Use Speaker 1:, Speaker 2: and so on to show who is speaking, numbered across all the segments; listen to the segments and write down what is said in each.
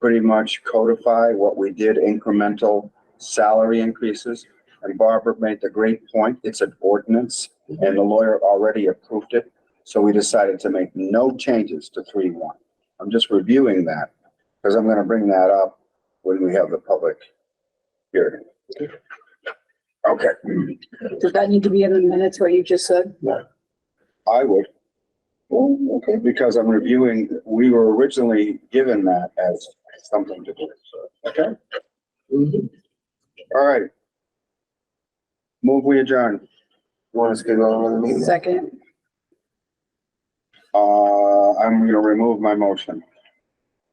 Speaker 1: pretty much codify what we did incremental salary increases. And Barbara made the great point, it's an ordinance and the lawyer already approved it. So we decided to make no changes to three one. I'm just reviewing that because I'm going to bring that up when we have the public hearing. Okay,
Speaker 2: Does that need to be in the minutes what you just said?
Speaker 1: I would,
Speaker 2: Oh, okay.
Speaker 1: because I'm reviewing, we were originally given that as something to do. Okay?
Speaker 3: Mm-hmm.
Speaker 1: All right. Move we adjourn.
Speaker 3: Want us to go on with the meeting?
Speaker 2: Second,
Speaker 1: Uh, I'm gonna remove my motion.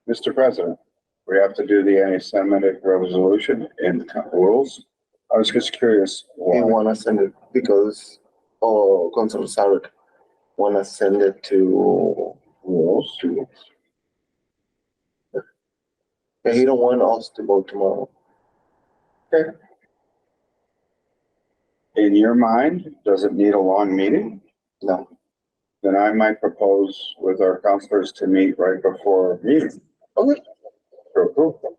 Speaker 1: Mr. President, we have to do the anti-Semitic resolution in rules. I was just curious.
Speaker 3: He
Speaker 1: why.
Speaker 3: want to send it because, oh, Councilor Sarek want to send it to,
Speaker 1: Rules?
Speaker 3: he don't want us to vote tomorrow.
Speaker 1: In your mind, does it need a long meeting?
Speaker 3: No,
Speaker 1: Then I might propose with our counselors to meet right before our meeting.
Speaker 3: Okay.
Speaker 1: To approve them.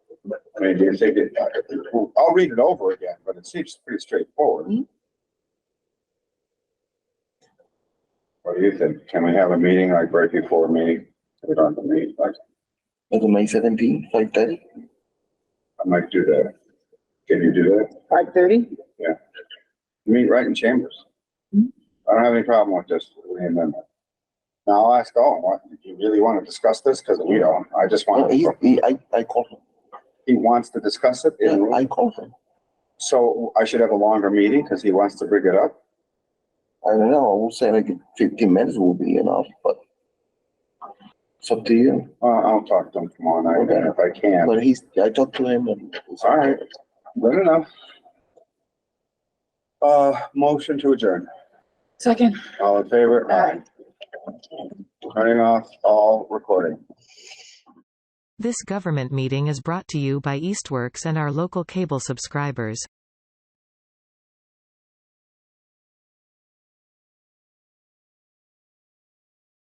Speaker 1: I mean, do you think it, I'll read it over again, but it seems pretty straightforward. What do you think? Can we have a meeting like right before a meeting? We don't have to meet, like,
Speaker 3: like May seventeen, like that.
Speaker 1: I might do that. Can you do that?
Speaker 2: five thirty?
Speaker 1: Meet right in chambers.
Speaker 3: Hmm?
Speaker 2: Mhm.
Speaker 1: I don't have any problem with this, the amendment. Now I'll ask Owen, what, do you really want to discuss this? Because we don't, I just
Speaker 3: Oh,
Speaker 1: want
Speaker 3: he,
Speaker 1: to,
Speaker 3: he, I, I called him.
Speaker 1: he wants to discuss it in
Speaker 3: Yeah,
Speaker 1: room.
Speaker 3: I called him.
Speaker 1: So I should have a longer meeting because he wants to bring it up.
Speaker 3: I don't know, I will say like fifteen minutes will be enough, but it's up to you.
Speaker 1: Uh, I'll talk to him tomorrow night then if I can.
Speaker 3: But he's, I talked to him and. it's
Speaker 1: All right. Good enough. Uh, motion to adjourn.
Speaker 2: Second.
Speaker 1: All in favor? Aye. Turning off all recording.
Speaker 4: This government meeting is brought to you by Eastworks and our local cable subscribers.